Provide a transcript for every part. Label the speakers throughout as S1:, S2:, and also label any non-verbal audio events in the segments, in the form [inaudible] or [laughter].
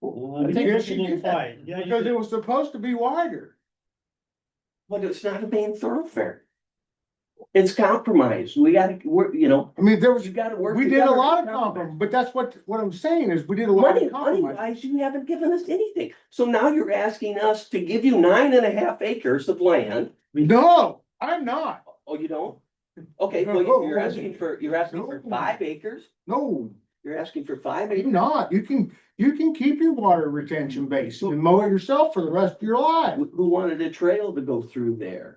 S1: Well,
S2: I
S1: we
S2: think you
S1: did
S2: should
S1: a little
S2: do that,
S1: fight, yeah, you
S2: Because
S1: did.
S2: it was supposed to be wider.
S1: but it's not a main thoroughfare. It's compromise, we gotta, we're, you know,
S2: I mean, there was,
S1: you gotta work.
S2: we did a
S1: together
S2: lot of
S1: to
S2: compromise, but that's what, what I'm saying is we did a lot
S1: Money,
S2: of
S1: money
S2: compromise.
S1: wise, you haven't given us anything, so now you're asking us to give you nine and a half acres of land,
S2: No, I'm not.
S1: oh, you don't? Okay, well,
S2: No.
S1: you're asking for, you're asking for
S2: No.
S1: five acres,
S2: No,
S1: you're asking for five
S2: you're
S1: acres,
S2: not. You can, you can keep your water retention basin and mow it yourself for the rest of your life
S1: who who wanted a trail to go through there?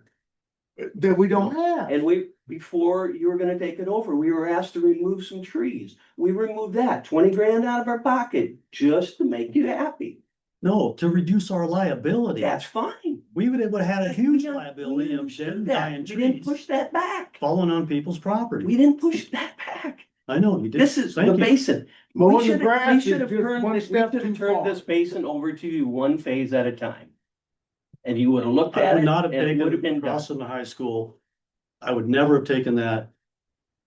S2: that we don't have.
S1: And we, before you were gonna take it over, we were asked to remove some trees. We removed that, twenty grand out of our pocket, just to make you happy.
S3: No, to reduce our liability.
S1: That's fine.
S3: We would have had a
S1: We
S3: huge
S1: don't-
S3: liability
S1: we
S3: of
S1: didn't
S3: shedding
S1: do that.
S3: dying
S1: We didn't
S3: trees
S1: push that back.
S3: falling on people's property.
S1: We didn't push that back.
S3: I know you did.
S1: This is the
S3: Thank you.
S1: basin. We
S2: Mowing the
S1: should've- we
S2: grass is
S1: should've
S2: just
S1: turned
S2: one
S1: this- we
S2: step
S1: should've
S2: too
S1: turned
S2: far.
S1: This basin over to you one phase at a time. And you would have looked
S3: I
S1: at
S3: would
S1: it
S3: not have
S1: and it would have
S3: taken
S1: been done.
S3: Crossing the high school. I would never have taken that.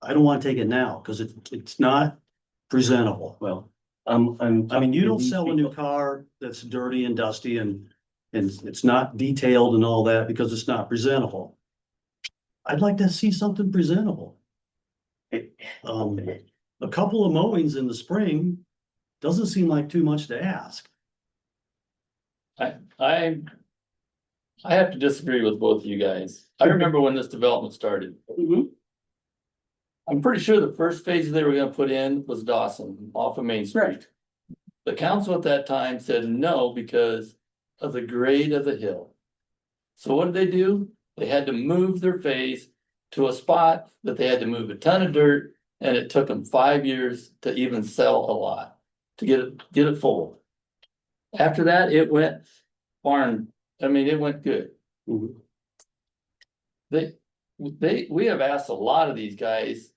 S3: I don't want to take it now because it, it's not presentable.
S1: Well, I'm, I'm.
S3: I mean,
S1: talking
S3: you
S1: to
S3: don't
S1: these
S3: sell a
S1: people.
S3: new car that's dirty and dusty and, and it's not detailed and all that because it's not presentable. I'd like to see something presentable. Um, a couple of mowings in the spring doesn't seem like too much to ask.
S4: I. I have to disagree with both of you guys. I remember when this development started.
S1: Mhm.
S4: I'm pretty sure the first phase they were gonna put in was Dawson off of Main Street. The council at that time said no because of the grade of the hill. So what did they do? They had to move their phase to a spot that they had to move a ton of dirt. And it took them five years to even sell a lot, to get it, get it full. After that, it went barn, I mean, it went good.
S1: Mhm.
S4: They, they, we have asked a lot of these guys.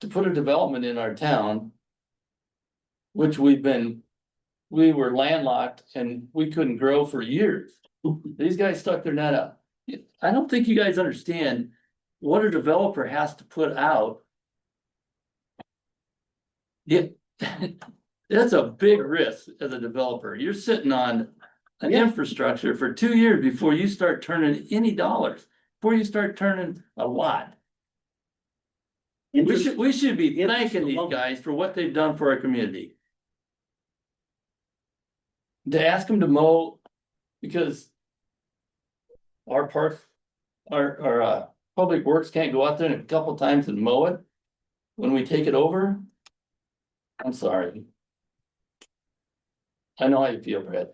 S4: To put a development in our town. Which we've been, we were landlocked and we couldn't grow for years. These guys stuck their net up. I don't think you guys understand what a developer has to put out. Yeah, [laughs] that's a big risk as a developer. You're sitting on an infrastructure for two years before you start turning any dollars, before you start turning a lot. We
S1: Interest-
S4: should, we should be
S1: Interest
S4: thanking these
S1: alone.
S4: guys for what they've done for our community. To ask them to mow, because our parks, our, our, uh, public works can't go out there a couple times and mow it when we take it over. I'm sorry. I know how you feel, Brad.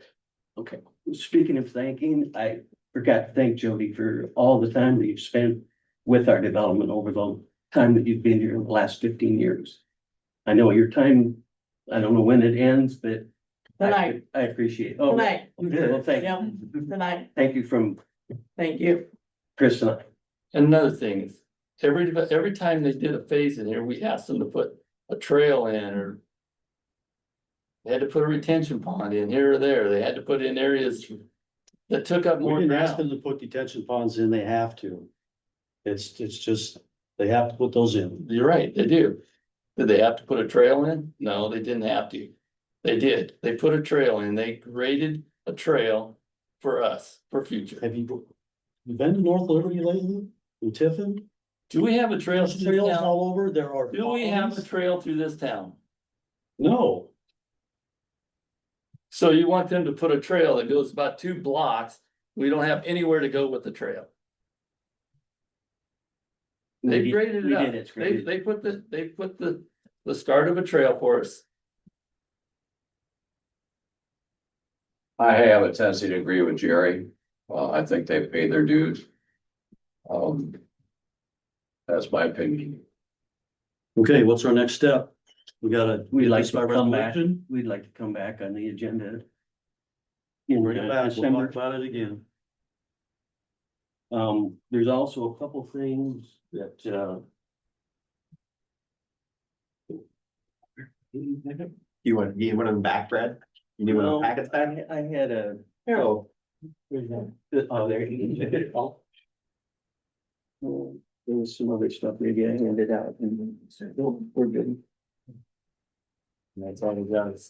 S1: Speaking of thanking, I forgot to thank Jody for all the time that you've spent with our development over the time that you've been here in the last fifteen years. I know your time, I don't know when it ends, but I,
S5: Tonight.
S1: I appreciate. it. Oh,
S5: Tonight.
S1: okay, Well, thank,
S5: Yep, tonight,
S1: thank you from
S5: thank you.
S1: Chris and I.
S4: Another thing is, every, every time they did a phase in here, we asked them to put a trail in or. They had to put a retention pond in here or there. They had to put in areas that took up
S3: We
S4: more
S3: didn't ask them
S4: ground.
S3: to put detention ponds in, they have to. It's, it's just, they have to put those in.
S4: You're right, they do. Did they have to put a trail in? No, they didn't have to. They did. They put a trail in. They graded a trail for us, for future.
S3: Have you, you been to North Liberty lately? In Tiffin?
S4: Do we have a trail
S3: There's
S4: through this
S3: trails
S4: town?
S3: all over, there are.
S4: Do we have a trail through this town?
S3: No,
S4: So you want them to put a trail that goes about two blocks, we don't have anywhere to go with the trail. They graded
S1: We
S4: it
S1: did,
S4: up,
S1: it's
S4: they,
S1: great.
S4: they put the, they put the, the start of a trail for us.
S6: I have a tendency to agree with Jerry. Uh, I think they've paid their dues. Um. That's my opinion.
S3: okay, what's our next step? We gotta.
S1: We'd
S3: get
S1: like
S3: this
S1: to
S3: by
S1: come back.
S3: resolution.
S1: We'd like to come back on the agenda. In
S3: Bring it
S1: uh,
S3: back, we'll talk
S1: December,
S3: about it again.
S1: um, there's also a couple things that, uh,
S7: You want, you want them back, Brad? You need one of
S1: well,
S7: the packets
S1: I,
S7: back?
S1: I had a
S7: No.
S1: Where's that? Oh, there. it is. Oh, There was some other stuff maybe oh, I handed out and then said, no, we're good.
S7: That's all we got is